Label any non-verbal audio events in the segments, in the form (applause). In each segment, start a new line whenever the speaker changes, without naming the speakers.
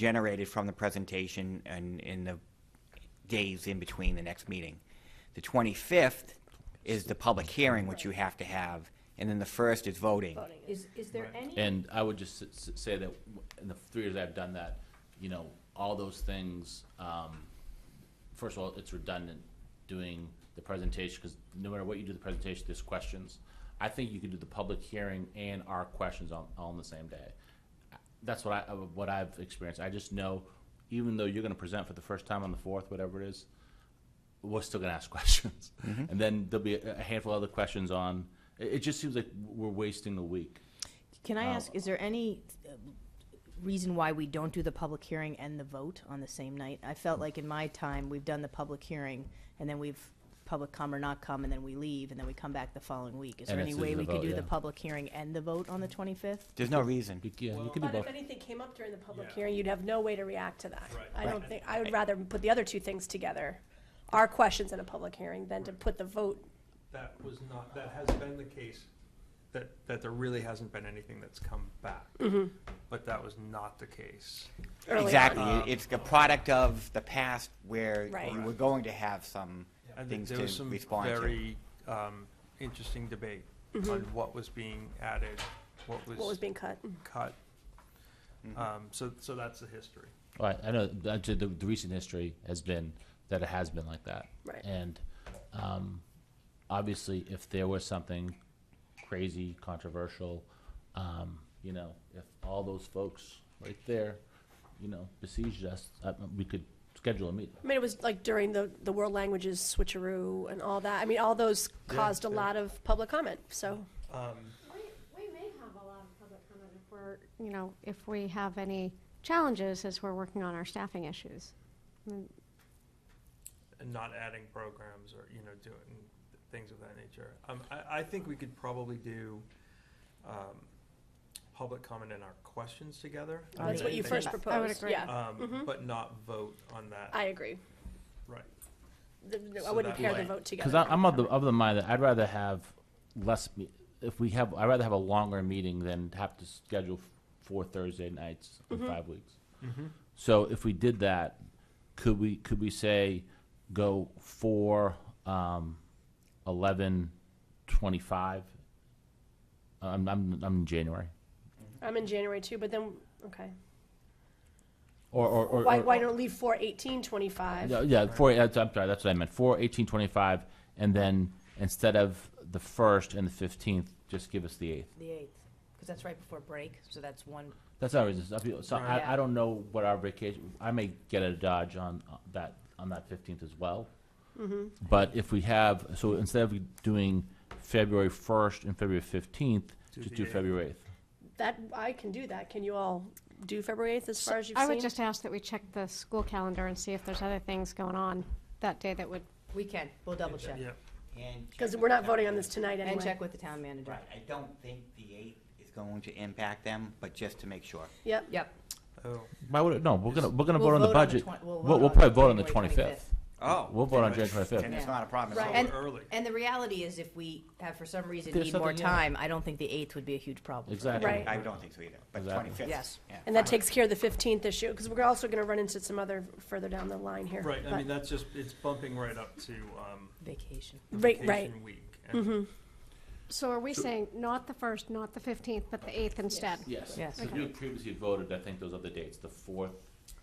generated from the presentation and in the days in between the next meeting. The 25th is the public hearing, which you have to have, and then the first is voting.
Is, is there any,
And I would just s- s- say that w- in the three years I've done that, you know, all those things, um, first of all, it's redundant doing the presentation, because no matter what you do the presentation, there's questions. I think you could do the public hearing and our questions on, all on the same day. That's what I, uh, what I've experienced. I just know, even though you're gonna present for the first time on the fourth, whatever it is, we're still gonna ask (laughs) questions. And then there'll be a a handful of other questions on, it, it just seems like we're wasting a week.
Can I ask, is there any uh, reason why we don't do the public hearing and the vote on the same night? I felt like in my time, we've done the public hearing, and then we've public come or not come, and then we leave, and then we come back the following week. Is there
And
any
it's
way
the
we could
vote,
do the
yeah.
public hearing and the vote on the 25th?
There's no reason.
You- Yeah, you can do
but
both.
if anything came up during the public
Yeah.
hearing, you'd have no way to react to that.
Right.
I don't think, I would rather put the other two things together, our questions in a public hearing, than to put the vote.
That was not, that has been the case, that, that there really hasn't been anything that's come back. But that was not the case.
Mm-hmm.
Um,
early on.
Exactly. It- It's the product of the past where
Uh-huh. Right.
you were going to have some
And th-
things
there was
to
some
respond to.
very, um, interesting debate on what was being added, what
Mm-hmm. What was
was
being cut.
cut. Um, so, so that's the history.
All right, I know that the, the recent history has been that it has been like that.
Right.
And um, obviously, if there was something crazy, controversial, um, you know, if all those folks right there, you know, besieged us, uh, we could schedule a meeting.
I mean, it was like during the, the world languages switcheroo and all that. I mean, all those caused a
yeah.
lot of public comment, so.
Um,
We, we may have a lot of public comment if we're, you know, if we have any challenges as we're working on our staffing issues.
and not adding programs or, you know, doing things of that nature. Um, I, I think we could probably do, um, public comment and our questions together. I
Oh, That's what you
think-
first
I would
proposed,
agree.
yeah.
Um, but not vote on that,
I agree.
right.
The- the- I
So
wouldn't
that
pair the
might-
vote together.
Because I'm of the, uh, of the mind that I'd rather have less, me- if we have, I'd rather have a longer meeting than have to schedule f- four Thursday nights in
Mm-hmm.
five weeks. So if we did that, could we, could we say go four, um, eleven, twenty-five? I'm, I'm, I'm in January.
I'm in January too, but then, okay.
Or, or, or.
Why,
or-
why don't leave four eighteen twenty-five?
Yeah, yeah, four, that's- I'm sorry, that's what I meant, four, eighteen, twenty-five, and then instead of the first and the fifteenth, just give us the eighth.
The 8th, because that's right before break, so that's one.
That's not reason. So
Right.
I, I don't know what our vacation, I may get a Dodge on uh, that, on that fifteenth as well.
Mm-hmm.
But if we have, so instead of doing February first and February fifteenth,
Do
just
the
do
eighth.
February eighth.
That, I can do that. Can you all do February eighth as far as you've
I would
seen?
just ask that we check the school calendar and see if there's other things going on that day that would,
We can, we'll double check.
Yeah,
Because we're not voting on this tonight
And
anyway.
check with the town manager.
Right. I don't think the 8th is going to impact them, but just to make sure.
Yep,
Yep.
oh.
Why would, it- no, we're gonna, we're gonna
We'll
vote on the
vote on the
budget.
twen- we'll
We'll,
vote
we'll
on
probably vote on the
January
twenty-fifth.
Oh.
We'll vote on January 25th.
And it's not a problem.
Right.
So
And-
early.
And the reality is, if we have, for some reason,
There's
need more
something, yeah.
time, I don't think the 8th would be a huge problem.
Exactly.
Right.
I don't think so either, but
Exactly.
25th.
Yes.
yeah,
and that
fine.
takes care of the fifteenth issue, because we're also gonna run into some other further down the line here.
Right, I
But-
mean, that's just, it's bumping right up to, um,
Vacation.
Right, Mm-hmm. right.
vacation week. and
so are we saying not the first, not the fifteenth, but the eighth instead?
Yes,
Yes.
so you previously voted, I think, those other dates, the fourth,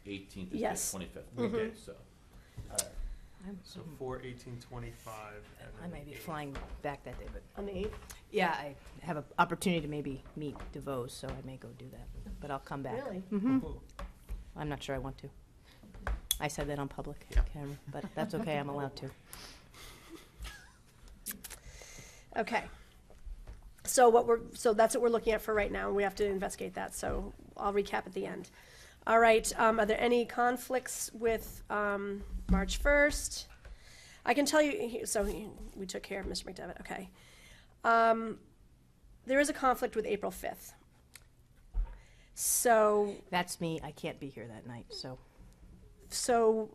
eighteenth, and
Yes.
twenty-fifth.
Mm-hmm.
Mhm.
So,
I'm-
So four eighteen twenty-five and
I
then
might be
eight.
flying back that day, but,
On the eighth?
yeah, I have an opportunity to maybe meet DeVos, so I may go do that, but I'll come back.
Really?
Cool.
I'm not sure I want to. I said that on public
Yeah.
camera, but that's okay, I'm allowed to.
Okay. So what we're, so that's what we're looking at for right now, and we have to investigate that, so I'll recap at the end. All right, um, are there any conflicts with, um, March first? I can tell you, so we took care of Mr. McDevitt, okay. Um, there is a conflict with April fifth. So,
That's me, I can't be here that night, so,
so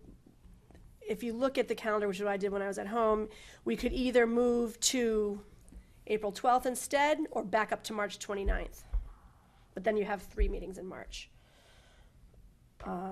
if you look at the calendar, which is what I did when I was at home, we could either move to April 12th instead or back up to March 29th. But then you have three meetings in March. um,